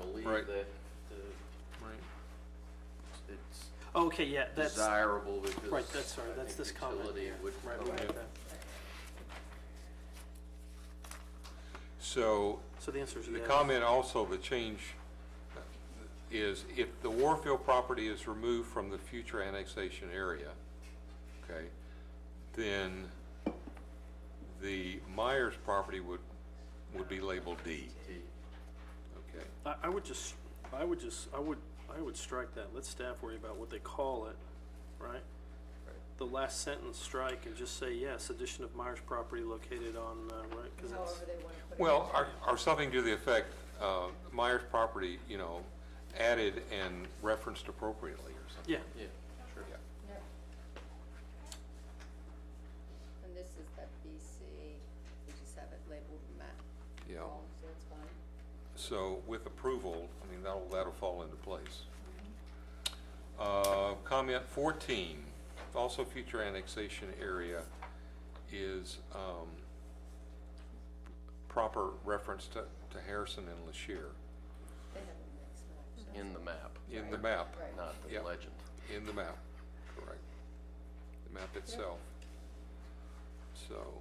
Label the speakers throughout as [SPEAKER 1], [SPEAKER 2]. [SPEAKER 1] Right.
[SPEAKER 2] believe that uh,
[SPEAKER 1] Right.
[SPEAKER 2] it's
[SPEAKER 3] Okay, yeah, that's,
[SPEAKER 2] desirable because.
[SPEAKER 3] right, that's sorry,
[SPEAKER 2] I
[SPEAKER 3] that's
[SPEAKER 2] think
[SPEAKER 3] this comment,
[SPEAKER 2] Utility
[SPEAKER 3] yeah.
[SPEAKER 2] would.
[SPEAKER 3] right, we got that.
[SPEAKER 1] So
[SPEAKER 3] So the answer is
[SPEAKER 1] the
[SPEAKER 3] yes.
[SPEAKER 1] comment also, the change uh, is if the Warfield property is removed from the future annexation area, okay, then the Myers property would, would be labeled D. Okay,
[SPEAKER 3] I, I would just, I would just, I would, I would strike that, let staff worry about what they call it, right? The last sentence strike and just say, yes, addition of Myers property located on, uh, right, cause that's,
[SPEAKER 4] however they want to put it.
[SPEAKER 1] well, or, or something to the effect, uh, Myers property, you know, added and referenced appropriately or something.
[SPEAKER 3] yeah,
[SPEAKER 2] Yeah, sure.
[SPEAKER 1] Yeah.
[SPEAKER 4] Yep. And this is that BC, we just have it labeled map.
[SPEAKER 1] Yeah.
[SPEAKER 4] wrong, So it's fine.
[SPEAKER 1] So with approval, I mean, that'll, that'll fall into place. Uh, Comment 14, also future annexation area, is um, proper reference to to Harrison and LaShire
[SPEAKER 4] They have a mix match.
[SPEAKER 2] In the map,
[SPEAKER 1] in the map,
[SPEAKER 4] Right.
[SPEAKER 2] not
[SPEAKER 1] Yeah.
[SPEAKER 2] the legend.
[SPEAKER 1] in the map, correct. The map itself. So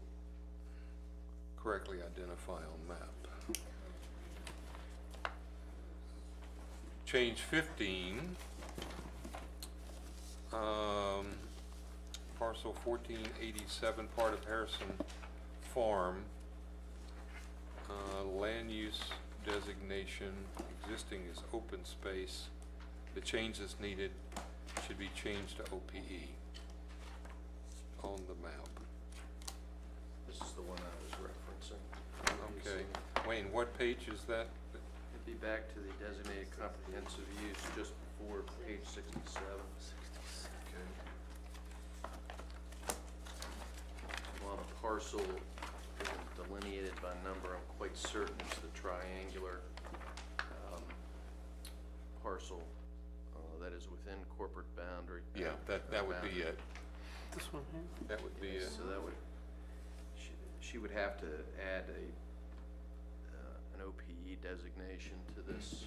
[SPEAKER 1] correctly identify on map. Change 15, um, parcel 1487, part of Harrison Farm, uh, land use designation, existing is open space. The change that's needed should be changed to OPE on the map.
[SPEAKER 2] This is the one I was referencing.
[SPEAKER 1] Okay, Wayne, what page is that?
[SPEAKER 2] It'd be back to the designated comprehensive use just before page sixty-seven. I'm on a parcel isn't delineated by number, I'm quite certain it's the triangular um, parcel uh, that is within corporate boundary.
[SPEAKER 1] Yeah, that, that would be it.
[SPEAKER 3] this one here.
[SPEAKER 1] That would be it.
[SPEAKER 2] So that would, she, she would have to add a, uh, an OPE designation to this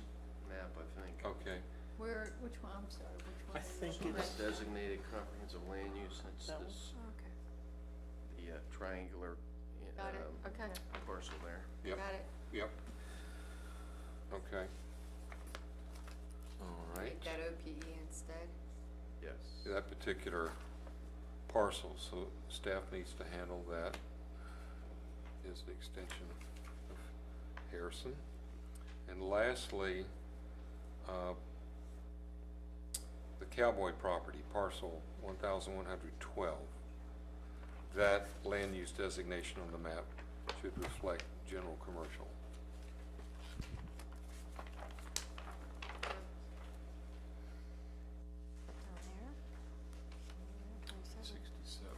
[SPEAKER 2] map, I think.
[SPEAKER 1] Okay,
[SPEAKER 4] Where, which one, I'm sorry, which one?
[SPEAKER 3] I think
[SPEAKER 2] So this
[SPEAKER 3] it's-
[SPEAKER 2] designated comprehensive land use, and it's
[SPEAKER 3] That one?
[SPEAKER 2] this,
[SPEAKER 4] Okay,
[SPEAKER 2] the uh, triangular uh,
[SPEAKER 4] got it,
[SPEAKER 1] Um,
[SPEAKER 4] okay,
[SPEAKER 2] parcel there.
[SPEAKER 1] yep,
[SPEAKER 4] got it.
[SPEAKER 1] yep. Okay. All right,
[SPEAKER 4] Make that OPE instead.
[SPEAKER 2] Yes.
[SPEAKER 1] that particular parcel, so staff needs to handle that as the extension of Harrison. And lastly, uh, the Cowboy property, parcel 1,112. That land use designation on the map should reflect general commercial.
[SPEAKER 4] Down there.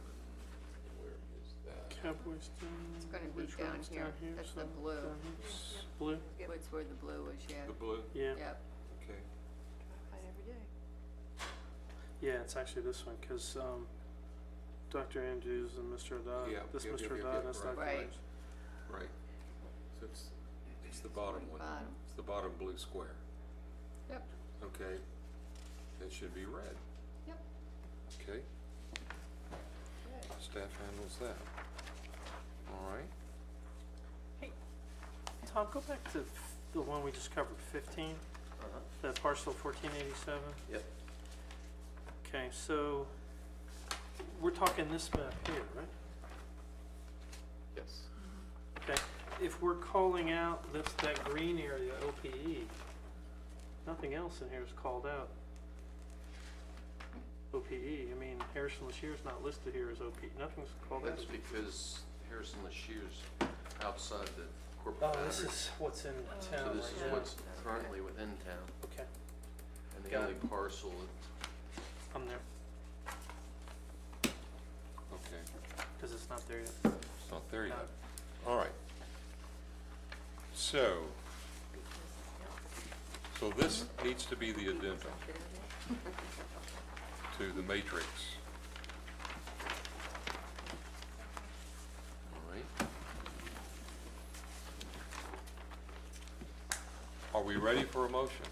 [SPEAKER 2] Where is that?
[SPEAKER 3] Cowboys down.
[SPEAKER 4] It's gonna be
[SPEAKER 3] which one
[SPEAKER 4] down
[SPEAKER 3] is
[SPEAKER 4] here, that's the
[SPEAKER 3] so-
[SPEAKER 4] blue.
[SPEAKER 3] down here. Blue,
[SPEAKER 4] What's where the blue is, yeah,
[SPEAKER 1] blue?
[SPEAKER 3] yeah,
[SPEAKER 4] yep.
[SPEAKER 1] Okay.
[SPEAKER 3] yeah, it's actually this one, cause, um, Dr. Andrews and Mr. Haddad,
[SPEAKER 1] Yeah,
[SPEAKER 3] this
[SPEAKER 1] yep, yep,
[SPEAKER 3] Mr.
[SPEAKER 1] yep, yep,
[SPEAKER 3] Haddad, that's
[SPEAKER 1] right.
[SPEAKER 3] Dr.
[SPEAKER 4] Right.
[SPEAKER 3] Andrews.
[SPEAKER 1] Right. So it's, it's the bottom one.
[SPEAKER 4] Bottom.
[SPEAKER 1] It's the bottom blue square.
[SPEAKER 4] Yep.
[SPEAKER 1] Okay. It should be red.
[SPEAKER 4] Yep.
[SPEAKER 1] Okay, staff handles that. All right.
[SPEAKER 3] Tom, go back to f- the one we just covered, fifteen,
[SPEAKER 2] Uh-huh.
[SPEAKER 3] that parcel fourteen eighty-seven.
[SPEAKER 2] Yep.
[SPEAKER 3] Okay, so we're talking this map here, right?
[SPEAKER 2] Yes.
[SPEAKER 3] Okay, if we're calling out that, that green area OPE, nothing else in here is called out. OPE, I mean, Harrison Lashir is not listed here as OPE, nothing's called out.
[SPEAKER 2] That's because Harrison Lashier's outside the corporate
[SPEAKER 3] Oh,
[SPEAKER 2] boundary.
[SPEAKER 3] this is what's in
[SPEAKER 4] Oh.
[SPEAKER 2] So
[SPEAKER 3] town right
[SPEAKER 2] this is
[SPEAKER 3] now.
[SPEAKER 2] what's currently within town,
[SPEAKER 3] Okay,
[SPEAKER 2] and the
[SPEAKER 3] Got
[SPEAKER 2] only parcel
[SPEAKER 3] I'm there,
[SPEAKER 1] Okay,
[SPEAKER 3] cause it's not there yet.
[SPEAKER 1] it's not there
[SPEAKER 3] No.
[SPEAKER 1] yet. All right. So, so this needs to be the addendum to the matrix. All right. Are we you ready for a motion?